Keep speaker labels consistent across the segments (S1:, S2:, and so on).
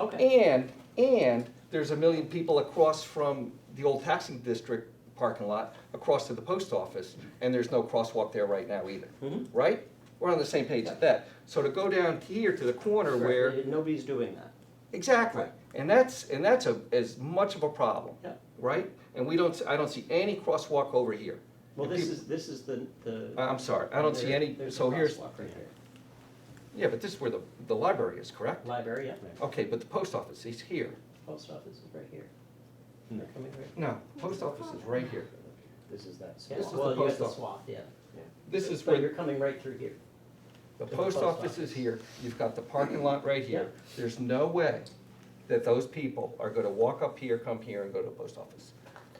S1: Okay.
S2: And, and there's a million people across from the old taxing district parking lot, across to the post office, and there's no crosswalk there right now either,
S1: Mhm.
S2: right? We're on the same page with that. So to go down here to the corner
S1: Correct.
S2: where,
S1: Nobody's doing that.
S2: exactly, and that's, and that's a, as much of a problem,
S1: Yeah.
S2: right? And we don't, s- I don't see any crosswalk over here.
S1: Well,
S2: And
S1: this
S2: peop-
S1: is, this is the, the.
S2: I- I'm sorry, I don't see
S1: there-
S2: any,
S1: there's a
S2: so here's,
S1: crosswalk right there.
S2: yeah, but this is where the, the library is, correct?
S1: Library, yeah.
S2: Okay, but the post office is here.
S1: Post office is right here. They're coming right.
S2: No, post office is right here.
S3: This is that
S1: Yeah,
S2: This is
S3: swamp.
S2: the
S1: well, you got
S2: post
S1: the
S2: office.
S1: swath, yeah.
S2: This is
S1: But
S2: where
S1: you're coming right through here.
S2: The
S1: To the
S2: post
S1: post
S2: office is
S1: office.
S2: here, you've got the parking lot right here. There's no way that those people are gonna walk up here, come here, and go to the post office.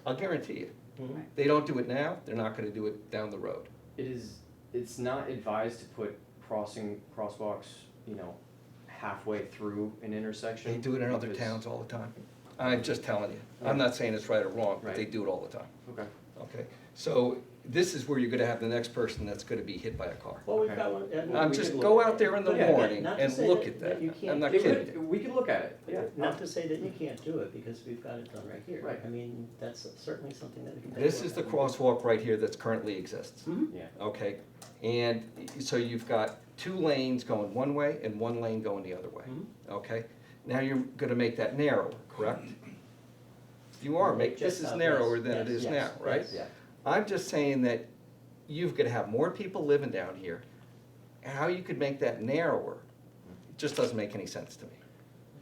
S2: I'll guarantee you.
S1: Hmm.
S2: They don't do it now, they're not gonna do it down the road.
S3: It is, it's not advised to put crossing, crosswalks, you know, halfway through an intersection.
S2: They do it in other
S3: because-
S2: towns all the time. I'm just telling you. I'm not saying it's right or wrong, but they
S3: Right.
S2: do it all the time,
S3: Okay,
S2: okay? So this is where you're gonna have the next person that's gonna be hit by a car.
S1: Well, we've
S3: Okay.
S1: got one. and we
S2: Um,
S1: can
S2: just
S1: look
S2: go
S1: at
S2: out
S1: it.
S2: there in the
S1: But yeah,
S2: morning
S1: not to
S2: and
S1: say
S2: look at that.
S1: you
S2: I'm
S1: can't
S2: not
S1: do
S3: It
S1: it.
S2: kidding.
S3: would- we can look at it, yeah.
S1: Not to say that you can't do it, because we've got it done right here.
S3: Right.
S1: I mean, that's certainly something that we can. take a
S2: This
S1: look
S2: is
S1: at.
S2: the crosswalk right here that's currently exists.
S1: Mhm.
S3: Yeah,
S2: Okay, and so you've got two lanes going one way and one lane going the other way,
S1: Mhm.
S2: okay? Now you're gonna make that narrower, correct? You are, make, this
S1: Just
S2: is
S1: about,
S2: narrower
S1: yes,
S2: than it
S1: yes,
S2: is now,
S1: yes,
S2: right?
S1: yes.
S3: yeah.
S2: I'm just saying that you've gotta have more people living down here. How you could make that narrower, it just doesn't make any sense to me.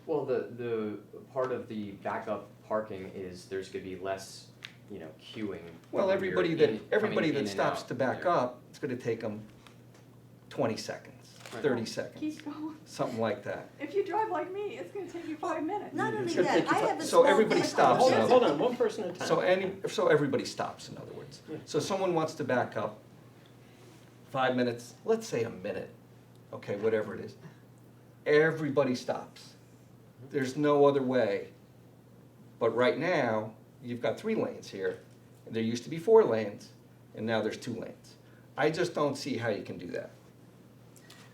S3: Well, the, the part of the backup parking is there's gonna be less, you know, queuing.
S2: Well,
S3: when you're
S2: everybody
S3: in-
S2: that,
S3: coming
S2: everybody
S3: in
S2: that
S3: and
S2: stops
S3: out
S2: to back
S3: there.
S2: up, it's gonna take them twenty seconds,
S3: Right.
S2: thirty seconds,
S4: Keep going.
S2: something like that.
S4: If you drive like me, it's gonna take you five minutes.
S5: Not only
S2: It's gonna
S5: that,
S2: take you
S5: I
S2: fi-
S5: have a
S2: so
S5: small
S2: everybody
S5: vehicle.
S2: stops
S1: Hold
S2: another
S1: on, hold on, one person at a time.
S2: So any, so everybody stops, in other words.
S1: Yeah.
S2: So someone wants to back up, five minutes, let's say a minute, okay, whatever it is. Everybody stops. There's no other way. But right now, you've got three lanes here, and there used to be four lanes, and now there's two lanes. I just don't see how you can do that.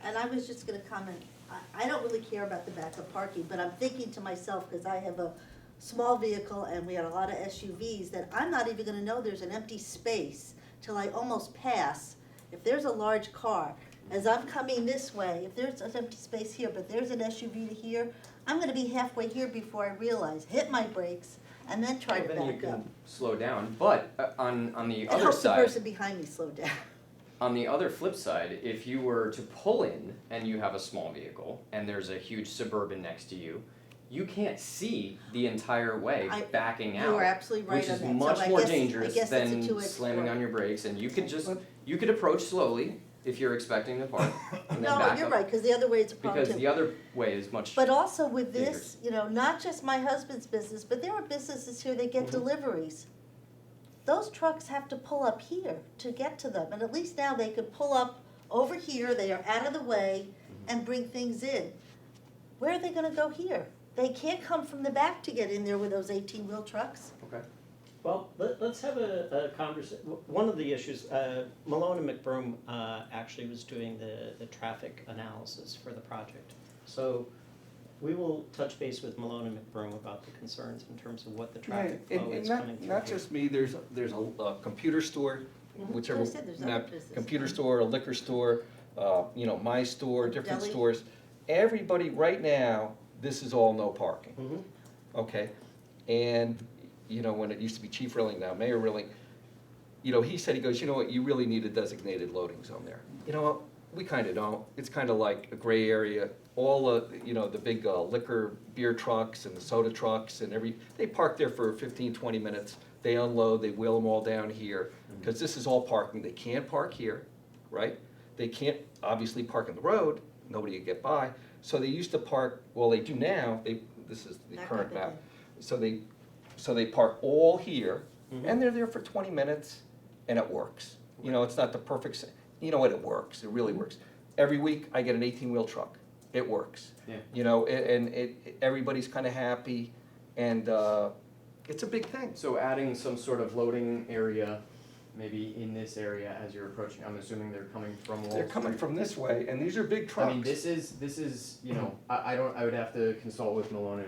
S5: And I was just gonna comment, I, I don't really care about the backup parking, but I'm thinking to myself, cause I have a small vehicle and we had a lot of SUVs, that I'm not even gonna know there's an empty space till I almost pass. If there's a large car, as I'm coming this way, if there's an empty space here, but there's an SUV to here, I'm gonna be halfway here before I realize, hit my brakes, and then try to
S3: Well, Then you
S5: back up.
S3: can slow down, but uh, on, on the
S5: It
S3: other
S5: helps the
S3: side,
S5: person behind me slow down.
S3: On the other flip side, if you were to pull in and you have a small vehicle and there's a huge suburban next to you, you can't see the entire way
S5: I-
S3: backing out.
S5: You are absolutely right
S3: which
S5: on that,
S3: is
S5: so
S3: much
S5: I
S3: more
S5: guess- I
S3: dangerous
S5: guess it's a
S3: than
S5: two-edged
S3: slamming
S5: sword.
S3: on your brakes and you could just you could approach slowly if you're expecting to park and then
S5: No,
S3: back
S5: you're
S3: up
S5: right, because the other way it's a problem
S3: because the
S5: too.
S3: other way is much
S5: But also with
S3: Dangerous.
S5: this, you know, not just my husband's business, but there are businesses here that get
S3: Mhm.
S5: deliveries. Those trucks have to pull up here to get to them, and at least now they could pull up over here, they are out of the
S3: Mhm.
S5: way,
S3: Mm-hmm.
S5: and bring things in. Where are they gonna go here? They can't come from the back to get in there with those eighteen-wheel trucks.
S3: okay.
S1: Well, let, let's have a, a conversation, one of the issues, uh, Malone and McBroom, uh, actually was doing the, the traffic analysis for the project. So we will touch base with Malone and McBroom about the concerns in terms of what the traffic
S2: And-
S1: flow
S2: and
S1: is
S2: not-
S1: coming through.
S2: Not
S1: here.
S2: just me, there's, there's a, a computer store,
S5: Mhm.
S2: whichever,
S5: I said there's other
S2: not-
S5: businesses.
S2: computer store, a liquor store, uh, you know, my store, different
S5: Deli.
S2: stores. Everybody, right now, this is all no parking,
S1: Mhm.
S2: okay? And, you know, when it used to be Chief Rilling, now Mayor Rilling, you know, he said, he goes, you know what, you really need a designated loading zone there. You know, what? we kinda don't, it's kinda like a gray area, all of, you know, the big uh, liquor, beer trucks and the soda trucks and every, they park there for 15, 20 minutes, they unload, they wheel them all down here, cause this is all parking, they can't park here, right? They can't obviously park in the road, nobody could get by, so they used to park, well, they do now, they, this is the
S5: Back up
S2: current
S5: again.
S2: map. So they, so they park all here,
S1: Mhm.
S3: Mm-hmm.
S2: and they're there for twenty minutes, and it works. You know, it's not the perfect, s- you know what, it works, it
S3: Mm-hmm.
S2: really works. Every week, I get an eighteen-wheel truck, it works.
S3: Yeah.
S2: You know, a- and it, everybody's kinda happy, and, uh, it's a big thing.
S3: So adding some sort of loading area maybe in this area as you're approaching? I'm assuming they're coming from Wall
S2: They're coming
S3: Street.
S2: from this way, and these are big trucks.
S3: I mean, this is, this is, you know, I, I don't, I would have to consult with Malone